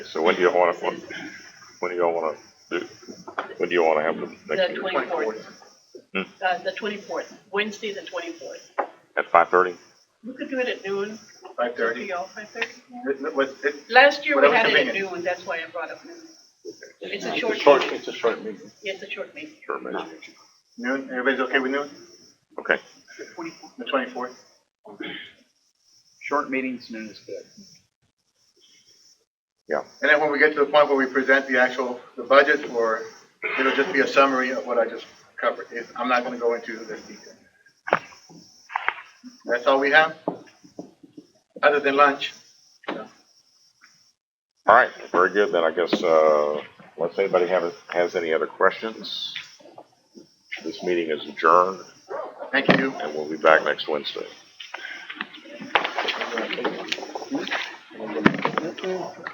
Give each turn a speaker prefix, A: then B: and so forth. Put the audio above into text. A: So when do you want to, when do y'all want to do, when do you want to have the next
B: The
A: meeting?
B: twenty-fourth.
A: Hmm.
B: Uh, the twenty-fourth, Wednesday, the twenty-fourth.
A: At five thirty?
B: We could do it at noon.
C: Five
B: Be
C: thirty.
B: all five thirty.
C: What's it?
B: Last year we
C: Whatever
B: had it at
C: convenient.
B: noon, that's why I brought up noon. It's a
D: It's a
B: short
D: short,
B: meeting.
D: it's a short meeting.
B: Yeah, It's a short meeting.
A: Sure, maybe.
C: Noon, everybody's okay with noon?
A: Okay.
C: The twenty-fourth?
E: Short meetings, noon is good.
C: And then when we get to the point where we present the actual, the budget, or it'll just be a summary of what I just covered. It- I'm not gonna go into this detail. That's all we have? Other than lunch?
A: All right, very good. Then I guess, uh, unless anybody have, has any other questions, this meeting is adjourned
C: Thank you.
A: and we'll be back next Wednesday.